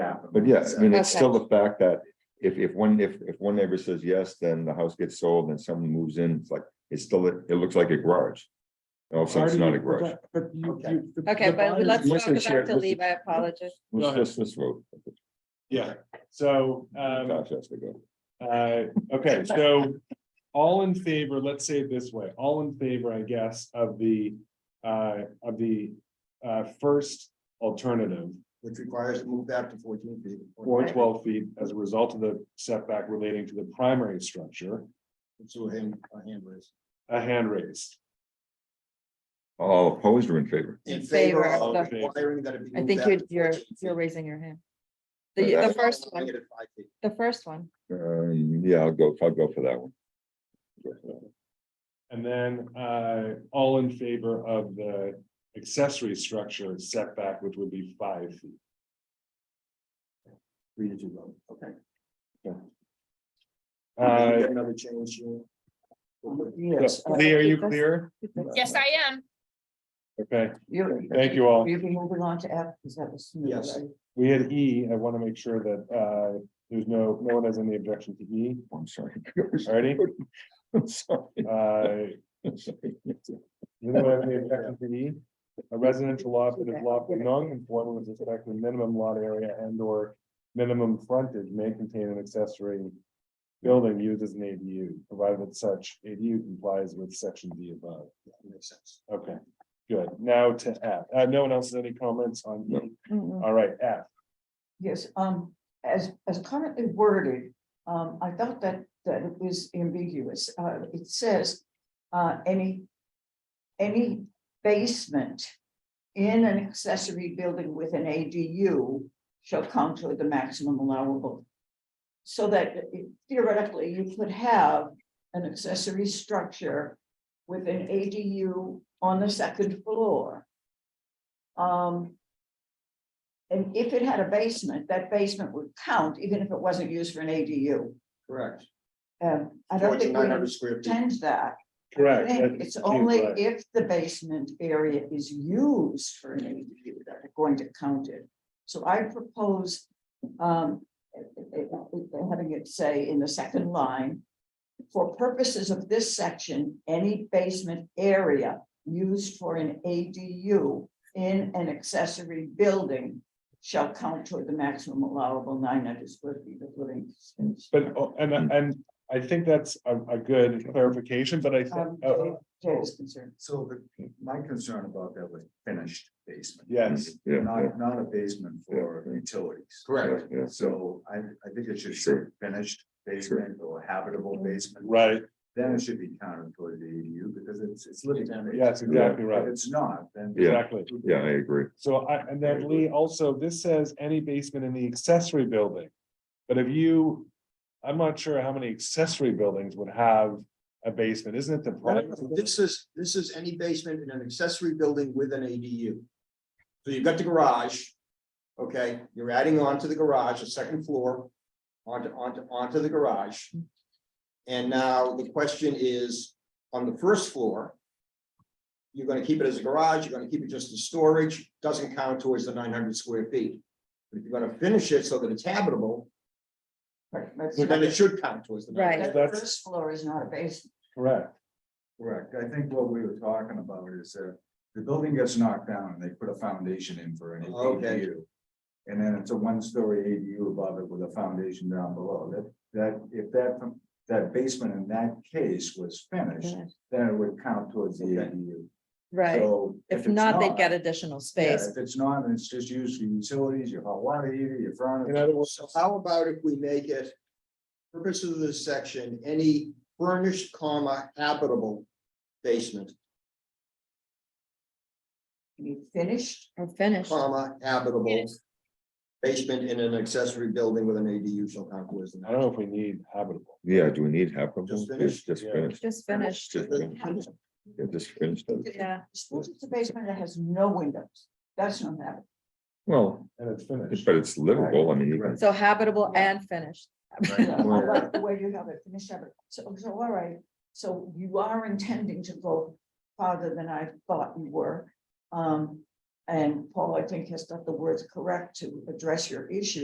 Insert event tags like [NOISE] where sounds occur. happen. But yes, I mean, it's Okay. still the fact that if, if one, if, if one neighbor says yes, then the house gets sold and someone moves in, it's like, it's still, it looks like a garage. Also, it's not a garage. But you, Okay. you. the- Okay, the but buyers- let's listen, go Sharon, back to listen. leave. I apologize. Let's ahead. just, let's vote. Yeah, so, um, Josh has to go. uh, [LAUGHS] okay, so all in favor, let's say it this way, all in favor, I guess, of the, uh, of the, uh, first alternative, which requires to move back to fourteen feet. or twelve feet as a result of the setback relating to the primary structure, So him, a hand raise. a hand raised. All opposed or in favor? In favor favor of of the- requiring that it be. I moved think back you're, to you're, 14 you're feet. raising your hand. But The, the that's- first one, Negative five feet. the first one. Um, yeah, I'll go, I'll go for that one. And then, uh, all in favor of the accessory structure setback, which would be five feet. Three to two vote, okay. Can we Uh, get Another change. Jim? so, Lee, are you clear? Yes, I am. Okay, You're, thank you all. you're moving on to F, because that was. smooth, Yes. right? We had E, I want to make sure that, uh, there's no, no one has any objection to E, I'm sorry. [LAUGHS] already? I'm sorry. Uh, I'm sorry. does anyone have any objection to E? A residential lot that is lawfully non-conforming with respect to minimum lot area and or minimum frontage may contain an accessory building used as an ADU, provided that such ADU complies with section D above. Makes sense. Okay, good. Now to F. Uh, no one else has any comments on E? Mm, mm. All right, F. Yes, um, as, as currently worded, um, I thought that, that it was ambiguous. Uh, it says, uh, any, any basement in an accessory building with an ADU shall count toward the maximum allowable. So that theoretically, you could have an accessory structure with an ADU on the second floor. Um, And if it had a basement, that basement would count even if it wasn't used for an ADU. Correct. Um, I don't Fourteen think nine we hundred square feet. intend that. I Correct. think that It's seems only right. if the basement area is used for an ADU that are going to count it. So I propose um, having it say in the second line, for purposes of this section, any basement area used for an ADU in an accessory building shall count toward the maximum allowable nine hundred square feet of living space. But, oh, and, Hmm. and I think that's a, a good clarification, but I, oh, Um, think Jay- Jay is concerned. So the, my concern about that was finished basement. yes, Yeah, yeah, not a basement for utilities. yeah, Correct. yeah. So I, I think it should say finished basement or habitable basement. right, Then it should be counted toward the ADU because it's, it's living. space. yes, exactly If right, it's not, then. Yeah. exactly. Yeah, I agree. So I, and then Lee, also, this says any basement in the accessory building. But if you, I'm not sure how many accessory buildings would have a basement, isn't it the primary? This is, this is any basement in an accessory building with an ADU. So you've got the garage, okay, you're adding on to the garage, a second floor, onto, onto, onto the garage. And now the question is, on the first floor, you're gonna keep it as a garage, you're gonna keep it just as storage, doesn't count towards the nine hundred square feet. But If you're gonna finish it so that it's habitable, But- but it's not- then it should count towards the. 900. Right. that That's- First floor is not a basement. Correct, Correct. I think what we were talking about is that the building gets knocked down and they put a foundation in for an Okay. ADU. And then it's a one-story ADU above it with a foundation down below. That, that, if that, that basement in that case was finished, then it would count towards the Okay. ADU. Right. So If it's not, they'd get additional yeah, space. If it's not, and it's just used for utilities, your hot water heater, your in furnace. other words, So how about if we make it, purposes of this section, any furnished comma habitable basement, You finished? Or finished. comma habitable Yes. basement in an accessory building with an ADU shall count towards the. I don't know if we need habitable. Yeah, do we need half of them? Just Just finished? just Yeah. finished. Just finished. Just finished. Yeah, just finished. it. Yeah. Suppose it's a basement that has no windows. That's not habitable. Well, And it's finished. but it's livable. I mean, you can So habitable and finished. I like the way you have it finished habit. So, so all right, so you are intending to go farther than I thought you were. Um, and Paul, I think, has got the words correct to address your issue.